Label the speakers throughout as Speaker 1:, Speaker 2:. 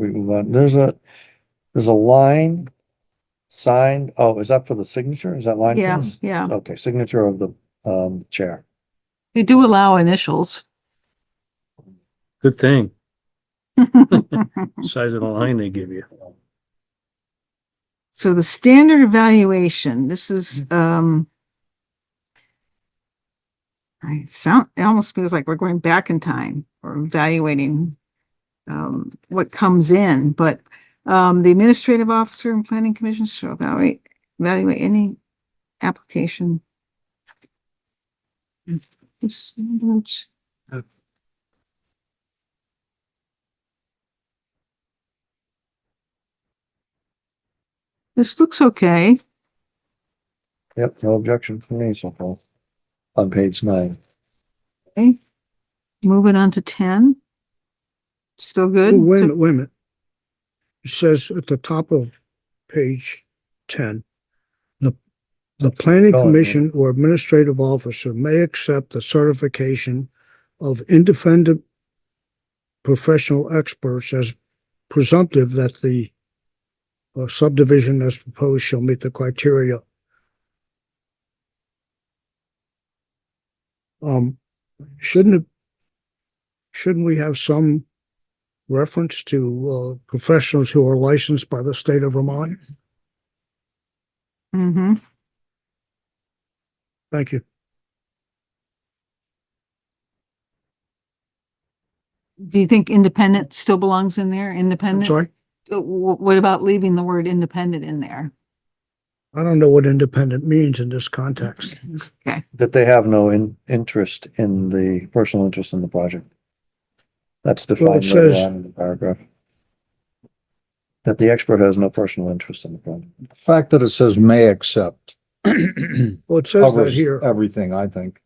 Speaker 1: we move on, there's a, there's a line signed, oh, is that for the signature? Is that line? for
Speaker 2: Yeah,
Speaker 1: this?
Speaker 2: yeah.
Speaker 1: Okay, signature of the, um, chair.
Speaker 2: They do allow initials.
Speaker 3: Good thing, size of the line they give you.
Speaker 2: So the standard evaluation, this
Speaker 4: Mm-hmm.
Speaker 2: is, um, I sound, it almost feels like we're going back in time or evaluating, um, what comes in, but, um, the administrative officer and planning commission shall evaluate, evaluate any application. This- This looks okay.
Speaker 1: Yep, no objection from me so far. On page nine.
Speaker 2: Moving on to ten. Still good?
Speaker 4: Oh, Wait a minute, wait a minute. It says at the top of page ten, the, the planning
Speaker 1: Oh, yeah.
Speaker 4: commission or administrative officer may accept the certification of independent professional experts as presumptive that the uh, subdivision as proposed shall meet the criteria. Um, shouldn't it, shouldn't we have some reference to uh, professionals who are licensed by the state of Vermont.
Speaker 2: Mm-hmm.
Speaker 4: Thank you.
Speaker 2: Do you think independent still belongs in there?
Speaker 4: I'm
Speaker 2: Independent?
Speaker 4: sorry.
Speaker 2: Uh, wh- What about leaving the word independent in there?
Speaker 4: I don't know what independent means in this context.
Speaker 1: That they have no in, interest in the, personal interest in the project. That's
Speaker 4: Well, it
Speaker 1: defined later
Speaker 4: says-
Speaker 1: on in the paragraph. That the expert has no personal interest in the project.
Speaker 5: The fact that it says may accept
Speaker 4: Well, it says that
Speaker 5: covers
Speaker 4: here.
Speaker 5: everything, I think.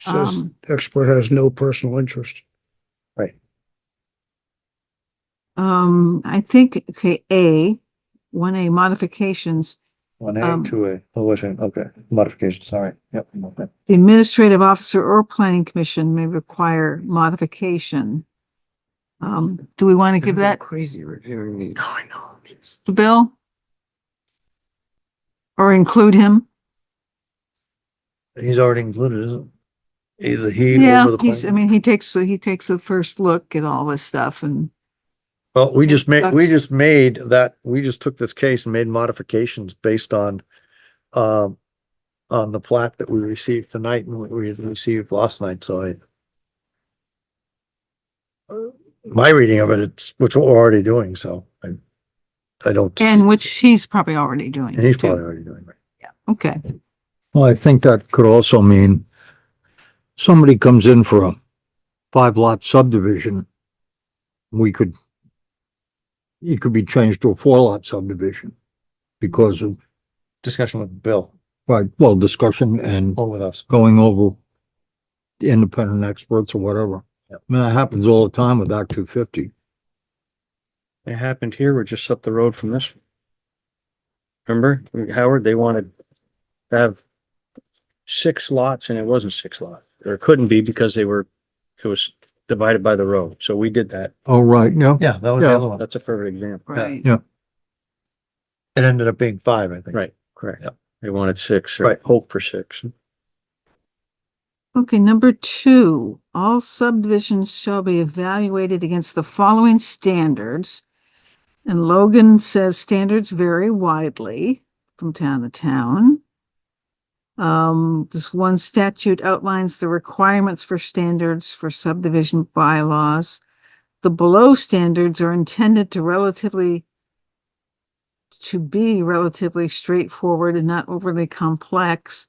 Speaker 4: It Says
Speaker 2: Um,
Speaker 4: the expert has no personal interest.
Speaker 2: Um, I think, okay, A, one A modifications,
Speaker 1: One
Speaker 2: Um,
Speaker 1: A, two A, oh, wait, a minute, okay, modification, sorry, yep, okay.
Speaker 2: the administrative officer or planning commission may require modification. Um, do we want to give that
Speaker 6: Crazy reviewing these. I know.
Speaker 2: to Bill? Or include him?
Speaker 1: He's already included, isn't he? Either he
Speaker 2: Yeah,
Speaker 1: or the.
Speaker 2: he's, I
Speaker 1: planning-
Speaker 2: mean, he takes, he takes a first look at all this stuff and,
Speaker 1: Well, we just made, we
Speaker 2: That's-
Speaker 1: just made that, we just took this case and made modifications based on, um, on the plat that we received tonight and what we had received last night, so I. My reading of it, it's, which we're already doing, so I, I don't.
Speaker 2: and which he's probably already doing.
Speaker 1: And he's
Speaker 2: too.
Speaker 1: probably already doing it.
Speaker 2: Okay.
Speaker 5: Well, I think that could also mean somebody comes in for a five lot subdivision. We could, it could be changed to a four lot subdivision because of,
Speaker 1: Discussion with Bill
Speaker 5: right, well, discussion and
Speaker 1: or with us.
Speaker 5: going over the independent experts or whatever. I mean, that happens all the time with Act two fifty.
Speaker 3: It happened here, we're just up the road from this. Remember, Howard, they wanted to have six lots and it wasn't six lots, or it couldn't be because they were, it was divided by the road. So we did that.
Speaker 5: Oh, right, yeah.
Speaker 1: Yeah, that was the
Speaker 5: Yeah.
Speaker 1: other one.
Speaker 3: That's a perfect example.
Speaker 2: Right.
Speaker 1: It ended up being five, I think.
Speaker 3: Right, correct.
Speaker 1: Yeah.
Speaker 3: They wanted six or
Speaker 1: Right.
Speaker 3: hope for six.
Speaker 2: Okay, number two, all subdivisions shall be evaluated against the following standards. And Logan says standards vary widely from town to town. Um, this one statute outlines the requirements for standards for subdivision bylaws. The below standards are intended to relatively to be relatively straightforward and not overly complex.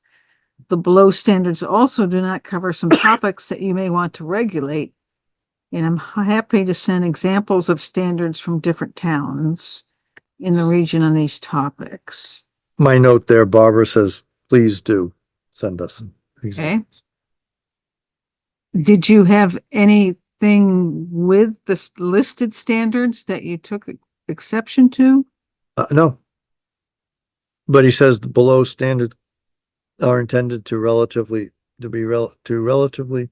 Speaker 2: The below standards also do not cover some topics that you may want to regulate. And I'm happy to send examples of standards from different towns in the region on these topics.
Speaker 1: My note there, Barbara says, please do send us.
Speaker 2: Okay. Did you have anything with the s- listed standards that you took exception to?
Speaker 1: Uh, no. But he says the below standard are intended to relatively, to be rel, to relatively